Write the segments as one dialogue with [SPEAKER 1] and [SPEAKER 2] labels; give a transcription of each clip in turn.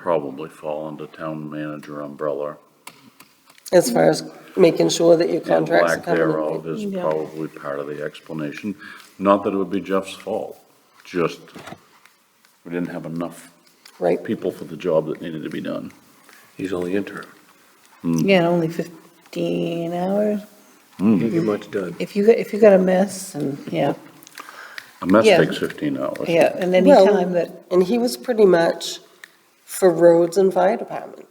[SPEAKER 1] probably fall under town manager umbrella.
[SPEAKER 2] as far as making sure that your
[SPEAKER 1] And
[SPEAKER 2] contracts are
[SPEAKER 1] lack
[SPEAKER 2] covered.
[SPEAKER 1] thereof is
[SPEAKER 3] Yeah.
[SPEAKER 1] probably part of the explanation. Not that it would be Jeff's fault, just we didn't have enough
[SPEAKER 2] Right,
[SPEAKER 1] people for the job that needed to be done.
[SPEAKER 4] He's only interim.
[SPEAKER 3] Yeah, only 15 hours.
[SPEAKER 4] Can't get much done.
[SPEAKER 3] If you, if you got a mess and, yeah,
[SPEAKER 1] A mess
[SPEAKER 3] Yeah.
[SPEAKER 1] takes fifteen hours.
[SPEAKER 3] yeah, and any
[SPEAKER 2] Well-
[SPEAKER 3] time that,
[SPEAKER 2] and he was pretty much for roads and fire department,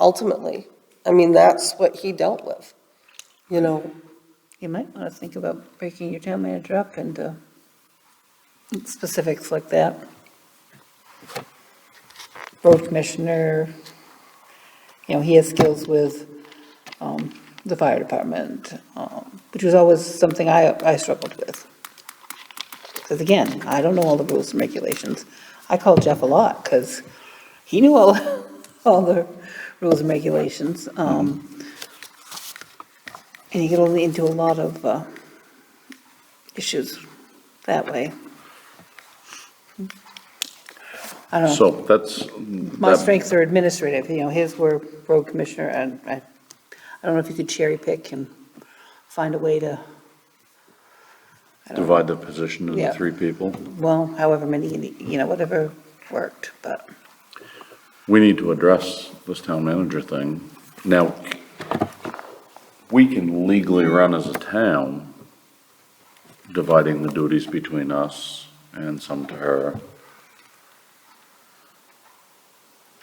[SPEAKER 2] ultimately. I mean, that's what he dealt with, you know,
[SPEAKER 3] you might want to think about breaking your town manager up into specifics like that. Road commissioner, you know, he has skills with um, the fire department, um, which was always something I, I struggled with. Because again, I don't know all the rules and regulations. I called Jeff a lot because he knew all, all the rules and regulations. um, And you get only into a lot of uh, issues that way. I don't know.
[SPEAKER 1] So that's.
[SPEAKER 3] My
[SPEAKER 1] that-
[SPEAKER 3] strengths are administrative, you know, his were road commissioner, and I, I don't know if you could cherry pick and find a way to,
[SPEAKER 1] Divide the position into
[SPEAKER 3] Yeah.
[SPEAKER 1] three people.
[SPEAKER 3] well, however many, you know, whatever worked, but,
[SPEAKER 1] We need to address this town manager thing. Now, we can legally run as a town, dividing the duties between us and some to her.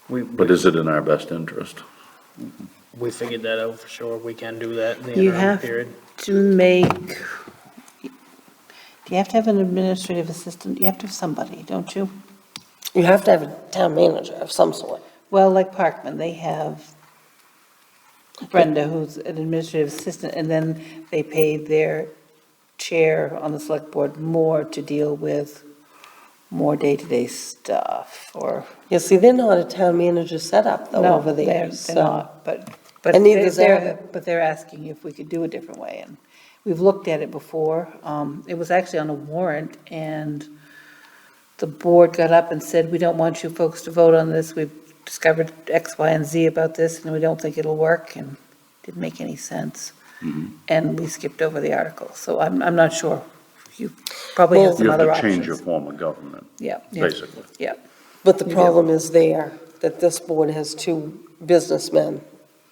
[SPEAKER 5] We,
[SPEAKER 1] But is it in our best interest?
[SPEAKER 5] we figured that out for sure, we can do that in the
[SPEAKER 3] You
[SPEAKER 5] interim
[SPEAKER 3] have-
[SPEAKER 5] period.
[SPEAKER 3] to make, do you have to have an administrative assistant, you have to have somebody, don't you?
[SPEAKER 2] you have to have a town manager of some sort.
[SPEAKER 3] Well, like Parkman, they have Brenda, who's an administrative assistant, and then they pay their chair on the select board more to deal with more day-to-day stuff, or,
[SPEAKER 2] You see, they're not a town manager setup though
[SPEAKER 3] no,
[SPEAKER 2] Oh, over
[SPEAKER 3] they're,
[SPEAKER 2] there,
[SPEAKER 3] they're
[SPEAKER 2] so.
[SPEAKER 3] not, but, but
[SPEAKER 2] And neither
[SPEAKER 3] they're,
[SPEAKER 2] is
[SPEAKER 3] they're- but they're asking if we could do a different way, and we've looked at it before, um, it was actually on a warrant, and the board got up and said, we don't want you folks to vote on this, we've discovered X, Y, and Z about this, and we don't think it'll work, and it didn't make any sense.
[SPEAKER 1] Mm-hmm.
[SPEAKER 3] And we skipped over the article, so I'm, I'm not sure, you probably have
[SPEAKER 2] Well-
[SPEAKER 3] some
[SPEAKER 1] You have
[SPEAKER 3] other
[SPEAKER 1] to change your
[SPEAKER 3] options.
[SPEAKER 1] form of government,
[SPEAKER 3] Yeah, yeah,
[SPEAKER 1] basically.
[SPEAKER 3] yeah,
[SPEAKER 2] But the
[SPEAKER 3] You do.
[SPEAKER 2] problem is there, that this board has two businessmen,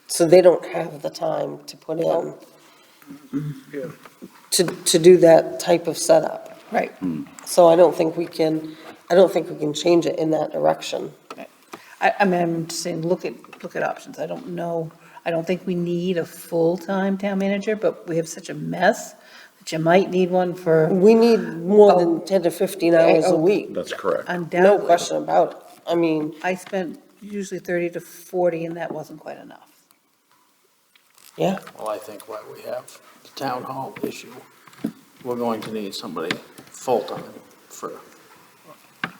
[SPEAKER 2] so they don't have the time to put in
[SPEAKER 5] Yeah.
[SPEAKER 2] to, to do that type of setup.
[SPEAKER 3] right.
[SPEAKER 2] So I don't think we can, I don't think we can change it in that direction.
[SPEAKER 3] I, I mean, I'm just saying, look at, look at options. I don't know, I don't think we need a full-time town manager, but we have such a mess that you might need one for
[SPEAKER 2] We need more than 10 to 15 hours a
[SPEAKER 3] Oh.
[SPEAKER 2] week,
[SPEAKER 1] That's correct.
[SPEAKER 2] no
[SPEAKER 3] undoubtedly.
[SPEAKER 2] question about it. I mean,
[SPEAKER 3] I spent usually thirty to forty, and that wasn't quite enough.
[SPEAKER 2] yeah,
[SPEAKER 6] Well, I think why we have the town hall issue, we're going to need somebody full-time for,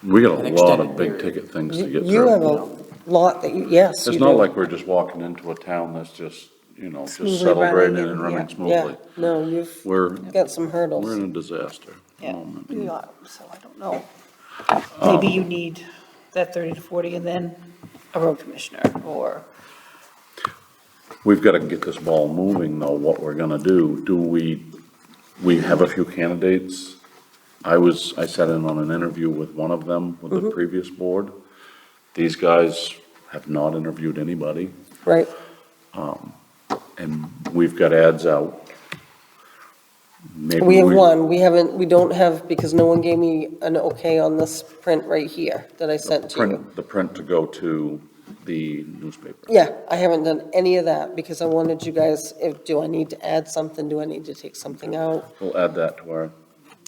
[SPEAKER 1] We got a
[SPEAKER 6] An
[SPEAKER 1] lot
[SPEAKER 6] extended
[SPEAKER 1] of big
[SPEAKER 6] period.
[SPEAKER 1] ticket things to get
[SPEAKER 2] you have
[SPEAKER 1] through.
[SPEAKER 2] a lot that, you yes, you
[SPEAKER 1] It's
[SPEAKER 2] do.
[SPEAKER 1] not like we're just walking into a town that's just, you know,
[SPEAKER 3] Smoothly
[SPEAKER 1] just settled right in
[SPEAKER 3] running and-
[SPEAKER 1] and running
[SPEAKER 3] yeah.
[SPEAKER 2] Yeah,
[SPEAKER 1] smoothly.
[SPEAKER 2] no, you've
[SPEAKER 1] We're,
[SPEAKER 2] got some
[SPEAKER 1] we're
[SPEAKER 2] hurdles.
[SPEAKER 1] in a disaster. at the
[SPEAKER 2] Oh,
[SPEAKER 3] Yeah.
[SPEAKER 1] moment.
[SPEAKER 3] We are, so I don't know. Maybe you need that thirty to forty, and then a road commissioner, or,
[SPEAKER 1] We've got to get this ball moving, though, what we're going to do. Do we, we have a few candidates. I was, I sat in on an interview with one of them with
[SPEAKER 2] Mm-hmm.
[SPEAKER 1] the previous board. These guys have not interviewed anybody,
[SPEAKER 2] Right,
[SPEAKER 1] and we've got ads out. Maybe
[SPEAKER 2] we have one, we haven't, we don't have, because no one gave me an okay on this print right here that I sent to you.
[SPEAKER 1] Print, the print to go to the newspaper.
[SPEAKER 2] Yeah, I haven't done any of that because I wanted you guys, if, do I need to add something? Do I need to take something out?
[SPEAKER 1] We'll add that to our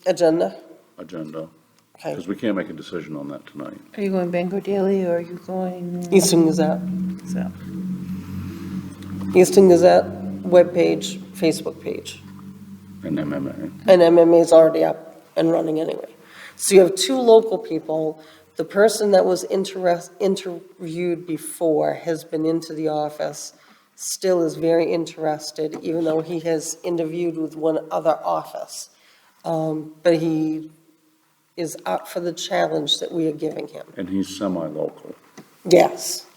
[SPEAKER 2] Agenda?
[SPEAKER 1] agenda,
[SPEAKER 2] Okay,
[SPEAKER 1] because we can't make a decision on that tonight.
[SPEAKER 3] are you going Bangor Daily, or are you going,
[SPEAKER 2] Easton Gazette.
[SPEAKER 3] so,
[SPEAKER 2] Easton Gazette webpage, Facebook page,
[SPEAKER 1] And MMA,
[SPEAKER 2] and MMA is already up and running anyway. So you have two local people. The person that was interest, interviewed before has been into the office, still is very interested, even though he has interviewed with one other office. Um, But he is up for the challenge that we are giving him.
[SPEAKER 1] and he's semi-local.
[SPEAKER 2] Yes.